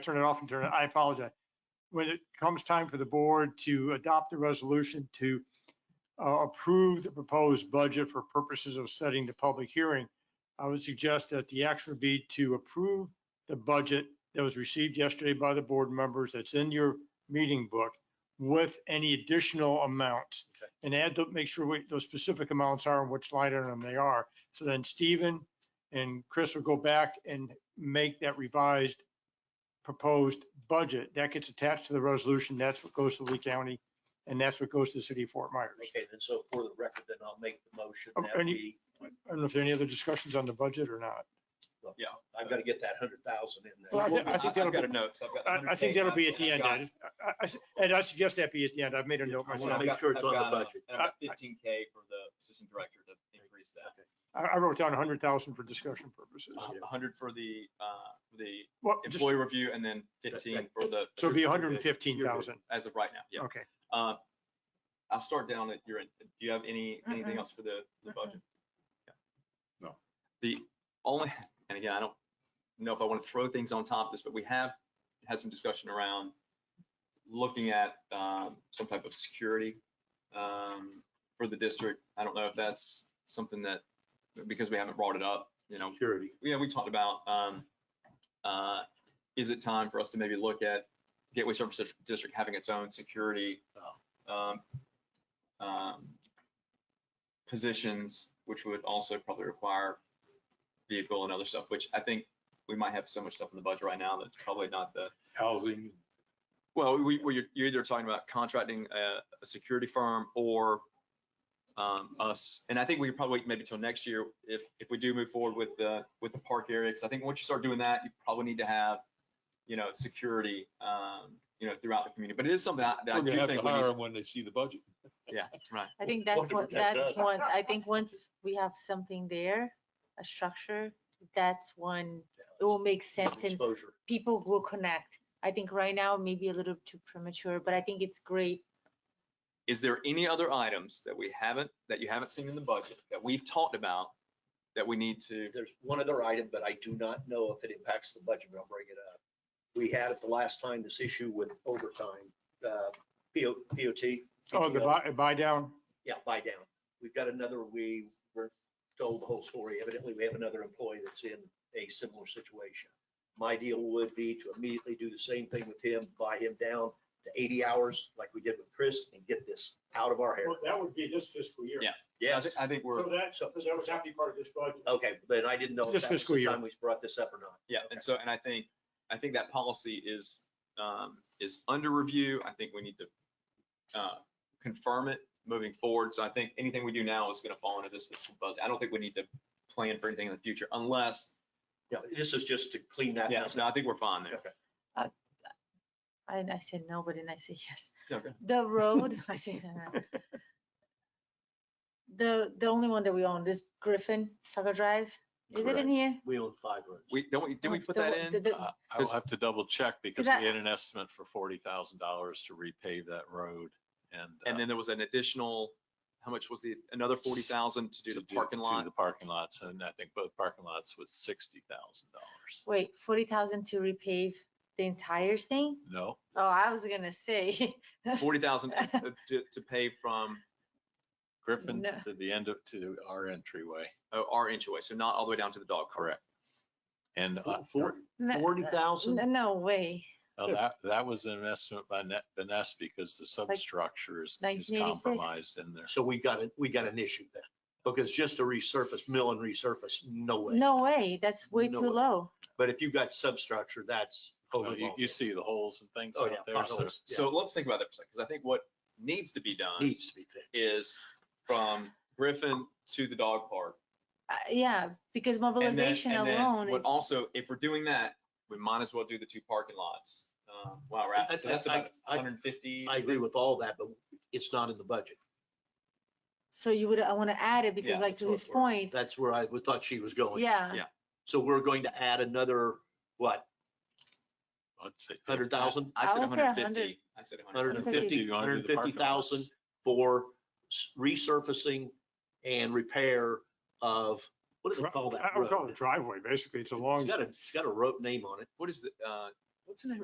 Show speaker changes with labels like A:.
A: turn it off and turn it, I apologize. When it comes time for the board to adopt the resolution to uh, approve the proposed budget for purposes of setting the public hearing, I would suggest that the action would be to approve the budget that was received yesterday by the board members that's in your meeting book with any additional amounts. And add, the- make sure what those specific amounts are and which line item they are. So then Stephen and Chris will go back and make that revised proposed budget. That gets attached to the resolution. That's what goes to Lee County and that's what goes to the city of Fort Myers.
B: Okay, then so for the record, then I'll make the motion
A: Um,
B: that
A: and you-
B: we,
A: I don't know if there are any other discussions on the budget or not.
B: I've got to get that hundred thousand in
A: Well, I
B: there.
A: thi- I think that'll
C: I've got a note, so I've got.
A: I, I think
C: 100K
A: that'll be at
C: left,
A: the end,
C: and I've
A: Ed. I, I- I s- Ed, I suggest that be at the end. I've made a note
C: got-
A: myself.
B: wanna
C: I've
B: make
C: got-
B: sure it's
C: I've
B: on the
C: got, uh,
B: budget.
C: And I've got
A: I- I-
C: fifteen K for the assistant director to increase that.
A: I, I wrote down hundred thousand for discussion purposes.
B: Uh-huh.
C: A hundred for the, uh, the
A: Well, just,
C: employee review and then fifteen for the.
A: so it'd be
C: assistant
A: hundred and
C: director
A: fifteen thousand.
C: As of right now, yeah.
A: Okay.
C: Uh, I'll start down at your end. Do you have any, anything else for the, the
D: Mm-mm.
C: budget? Yeah.
E: No.
C: The only, and again, I don't know if I want to throw things on top of this, but we have had some discussion around looking at, um, some type of security, um, for the district. I don't know if that's something that, because we haven't brought it up, you know,
B: Security.
C: yeah, we talked about, um, uh, is it time for us to maybe look at Gateway Service Dis- District having its own security, um, um, positions, which would also probably require vehicle and other stuff, which I think we might have so much stuff in the budget right now that's probably not the,
E: Housing.
C: well, we, we, you're- you're either talking about contracting a, a security firm or um, us. And I think we could probably wait maybe till next year if, if we do move forward with the, with the park area. Cause I think once you start doing that, you probably need to have, you know, security, um, you know, throughout the community. But it is something I, that I
E: We're
C: do
E: gonna have to
C: think we need.
E: hire them when they see the budget.
C: Yeah, right.
D: I think
B: Well,
D: that's
B: to
D: what,
B: protect
D: that's
B: us.
D: one, I think once we have something there, a structure, that's when it will make sense and
B: Exposure.
D: people will connect. I think right now maybe a little too premature, but I think it's great.
C: Is there any other items that we haven't, that you haven't seen in the budget that we've talked about that we need to?
B: There's one other item, but I do not know if it impacts the budget, but I'll bring it up. We had at the last time this issue with overtime, uh, PO, POT.
A: Oh, the buy, buy down?
B: Yeah, buy down. We've got another, we were told the whole story. Evidently, we have another employee that's in a similar situation. My deal would be to immediately do the same thing with him, buy him down to eighty hours like we did with Chris and get this out of our hair.
A: that would be this fiscal year.
C: Yeah. So I
B: Yes,
C: thi- I think we're,
A: that, that would not be part of this budget.
B: okay, but I didn't know if
A: This
B: that was
A: fiscal
B: the
A: year.
B: time we brought this up or not.
C: yeah, and so, and I think, I think that policy is, um, is under review. I think we need to, uh, confirm it moving forward. So I think anything we do now is gonna fall into this fiscal budget. I don't think we need to plan for anything in the future unless,
B: Yeah, this is just to clean that
C: yeah,
B: up.
C: no, I think we're fine there.
D: I, I said no, but then I said yes.
C: Okay.
D: The road, I said. uh, The, the only one that we own, this Griffin Sucker Drive, is it
C: Correct.
D: in here?
B: We own five roads.
C: We, don't, we- didn't we
D: Oh,
C: put
D: the
C: that
D: one- the-
C: in?
D: the-
E: Uh, I will
C: Does-
E: have to double check because
D: that-
E: we had an estimate for forty thousand dollars to repave that road and.
C: And
E: uh,
C: then there was an additional, how much was the, another forty thousand to do the parking
E: uh, to
C: lot?
E: The parking lots, and I think both parking lots was sixty thousand dollars.
D: Wait, forty thousand to repave the entire thing?
E: No,
D: Oh, I was gonna say.
C: Forty thousand to, to pay from
E: Griffin
D: No.
E: to the end of, to our entryway,
C: uh, our entryway, so not all the way down to the dog cart.
E: correct. And uh,
B: Four-
D: No,
B: Forty thousand?
D: no- no way.
E: now that, that was an estimate by Net, Vanessa because the substructure is is
D: 1986.
E: compromised in there.
B: So we got, it. we got an issue then, because just to resurface, mill and resurface, no way.
D: No way. That's way
B: No
D: too
B: way.
D: low.
B: But if you've got substructure, that's.
E: Well, Oh, You, you see the holes and things
B: Oh,
E: out
B: yeah,
E: there, so
B: potholes, yeah.
C: So let's think about that for a second, because I think what needs to be done
B: Needs to be fixed.
C: is from Griffin to the dog park.
D: Uh, Yeah, because
C: And then-
D: mobilization
C: and then
D: alone,
C: What
D: it-
C: also, if we're doing that, we might as well do the two parking lots. uh, While we're at, it. so
B: I- I-
C: that's about
B: I- I-
C: hundred and fifty.
B: I agree with all that, but it's not in the budget.
D: so you would, I want to add it because
C: Yeah,
D: like
C: that's
D: to
C: what
D: his
C: we're-
D: point,
B: That's where I was- thought she was going.
D: yeah.
C: yeah.
B: So we're going to add another, what,
E: I'd say
B: hundred thousand,
C: I
D: I
C: said
D: would say
C: hundred and
D: 100.
C: fifty. I said
B: hundred and
C: 150.
B: fifty,
E: You wanna
B: hundred
E: do
B: and
E: the
B: fifty
E: parking lots?
B: thousand for s- resurfacing and repair of, what does it call that
A: I would call it a
B: road?
A: driveway, basically. It's a long.
B: It's got a, it's got a rope name on it.
C: What is the, uh, what's the name of